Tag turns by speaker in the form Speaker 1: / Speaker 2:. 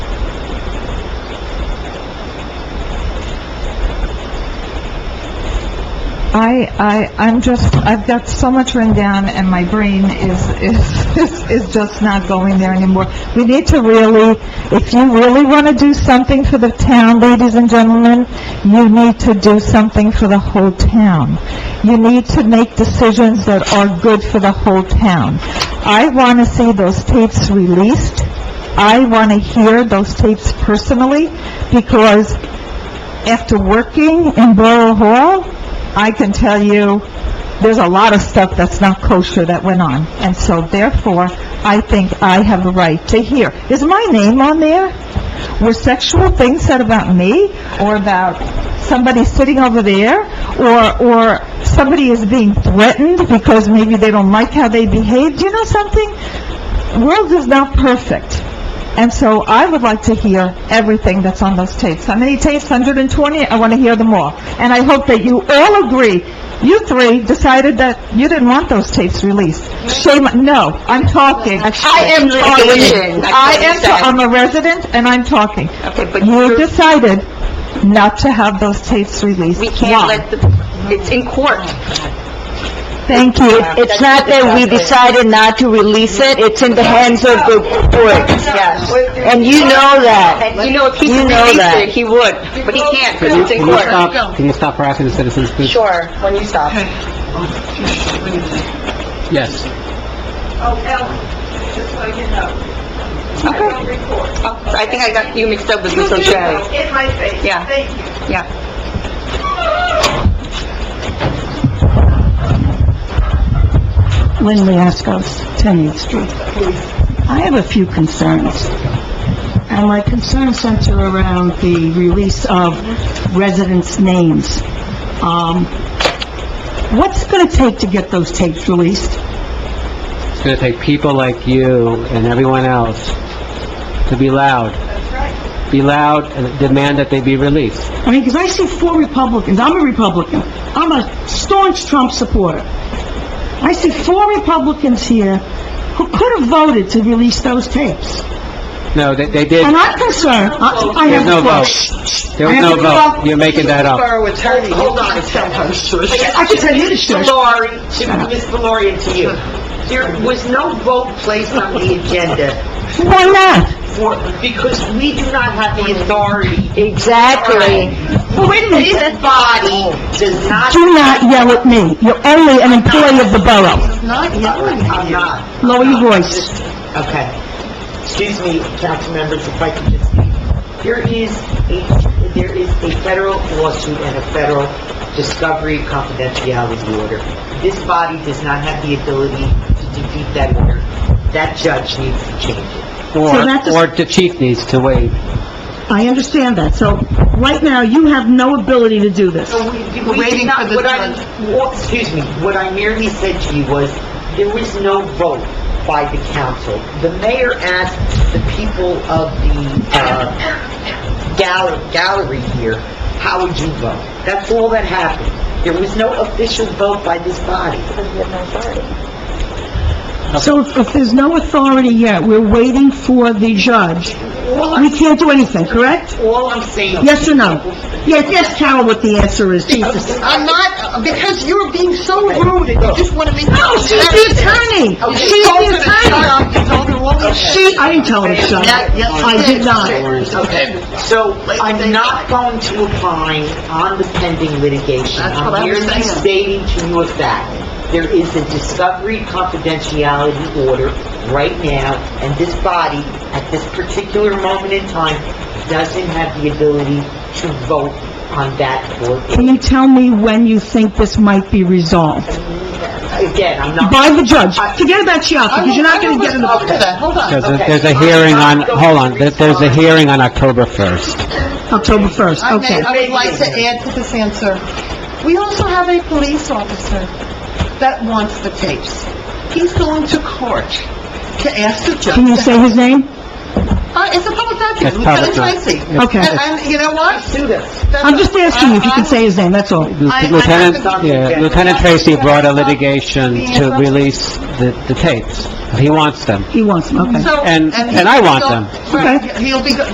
Speaker 1: I, I, I'm just, I've got so much written down, and my brain is, is, is- is just not going there anymore. We need to really, if you really want to do something for the town, ladies and gentlemen, you need to do something for the whole town. You need to make decisions that are good for the whole town. I want to see those tapes released. I want to hear those tapes personally, because after working in Borough Hall, I can tell you, there's a lot of stuff that's not kosher that went on. And so therefore, I think I have a right to hear. Is my name on there? Were sexual things said about me, or about somebody sitting over there, or, or somebody is being threatened because maybe they don't like how they behaved? You know something? World is not perfect. And so I would like to hear everything that's on those tapes. How many tapes? 120? I want to hear them all. And I hope that you all agree, you three decided that you didn't want those tapes released. Shame, no, I'm talking. I am talking.
Speaker 2: Litigation,
Speaker 1: I
Speaker 2: I
Speaker 1: am, ta- I'm
Speaker 2: understand.
Speaker 1: a resident and I'm talking.
Speaker 2: Okay, but
Speaker 1: You
Speaker 2: you're-
Speaker 1: decided not to have those tapes released.
Speaker 2: we can't
Speaker 1: Why?
Speaker 2: let the, it's in court.
Speaker 1: Thank you.
Speaker 3: It's not that we decided not to release it, it's in the hands of the court.
Speaker 2: Yes.
Speaker 3: And you know that.
Speaker 2: And you know, if he
Speaker 3: You
Speaker 2: could
Speaker 3: know
Speaker 2: release
Speaker 3: that.
Speaker 2: it, he would, but he can't,
Speaker 4: Can you,
Speaker 2: because it's in
Speaker 4: can you
Speaker 2: court.
Speaker 4: stop, can you stop harassing the citizens, please?
Speaker 2: Sure, when you stop.
Speaker 4: Yes.
Speaker 2: Okay. Oh, I think I got you mixed up with Miss O'Shea.
Speaker 1: In my face.
Speaker 2: Yeah. Yeah.
Speaker 5: Lynn Liascos, 10th Street. I have a few concerns. And my concerns center around the release of residents' names. Um, what's it gonna take to get those tapes released?
Speaker 4: It's gonna take people like you and everyone else to be loud. Be loud and demand that they be released.
Speaker 5: I mean, because I see four Republicans, I'm a Republican, I'm a staunch Trump supporter. I see four Republicans here who could have voted to release those tapes.
Speaker 4: No, they, they did.
Speaker 5: And I'm concerned, I I
Speaker 4: There's
Speaker 5: have...
Speaker 4: no vote. There was no vote. You're making that up.
Speaker 6: Borough attorney, hold on a second.
Speaker 5: I can tell you the truth.
Speaker 6: Mr. Laurie, to Ms. Valori and to you, there was no vote placed on the agenda
Speaker 5: Why not?
Speaker 6: for, because we do not have the authority.
Speaker 3: Exactly.
Speaker 5: Well, wait a
Speaker 6: This
Speaker 5: minute.
Speaker 6: body does not,
Speaker 5: Do not yell at me. You're only an employee of the borough.
Speaker 6: I'm not,
Speaker 5: Lower your voice.
Speaker 6: okay. Excuse me, council members, if I could just, there is a, there is a federal lawsuit and a federal discovery confidentiality order. This body does not have the ability to defeat that order. That judge needs to change it.
Speaker 5: So that's a-
Speaker 4: Or, or the chief needs to wait.
Speaker 5: I understand that. So, right now, you have no ability to do this.
Speaker 6: So we- we did not, what I, what- excuse me, what I merely said to you was, there was no vote by the council. The mayor asked the people of the, uh, gallery, gallery here, how would you vote? That's all that happened. There was no official vote by this body.
Speaker 5: So if if there's no authority yet, we're waiting for the judge.
Speaker 6: All
Speaker 5: We
Speaker 6: I'm,
Speaker 5: can't do anything, correct?
Speaker 6: all I'm saying.
Speaker 5: Yes or no? Yes, yes, Carol, what the answer is, Jesus.
Speaker 6: I'm not, because you're being so rude, and you just wanna make.
Speaker 5: No, Oh, she's the attorney! She's the attorney! She, I didn't tell her to shut up. I did not.
Speaker 6: Okay, so I'm not going to opine on the pending litigation. I'm merely stating to you a fact. There is a discovery confidentiality order right now, and this body, at this particular moment in time, doesn't have the ability to vote on that
Speaker 5: Can
Speaker 6: order.
Speaker 5: you tell me when you think this might be resolved?
Speaker 6: Again, I'm not...
Speaker 5: by the judge. Forget about Chiapa, because you're not going to get in the...
Speaker 6: hold on.
Speaker 4: There's a, there's a hearing on, hold on, There- there's a hearing on October 1st.
Speaker 5: October 1st, okay.
Speaker 7: I would like to add to this answer. We also have a police officer that wants the tapes. He's going to court to ask the judge.
Speaker 5: Can you say his name?
Speaker 7: Uh, it's a public
Speaker 4: It's public
Speaker 7: document,
Speaker 4: Uh,
Speaker 7: Lieutenant Tracy.
Speaker 4: doc-
Speaker 5: Okay.
Speaker 7: And, and you know what? Uh,
Speaker 5: I'm just asking you if you can say his name, that's all.
Speaker 7: I- I
Speaker 4: Lieutenant,
Speaker 7: haven't-
Speaker 4: yeah, Lieutenant Tracy brought a litigation to release the, the tapes. He wants them.
Speaker 5: He wants, him. okay.
Speaker 7: uh, So-
Speaker 4: And-
Speaker 7: he-
Speaker 4: and I want them.
Speaker 7: Right, He'll be, go-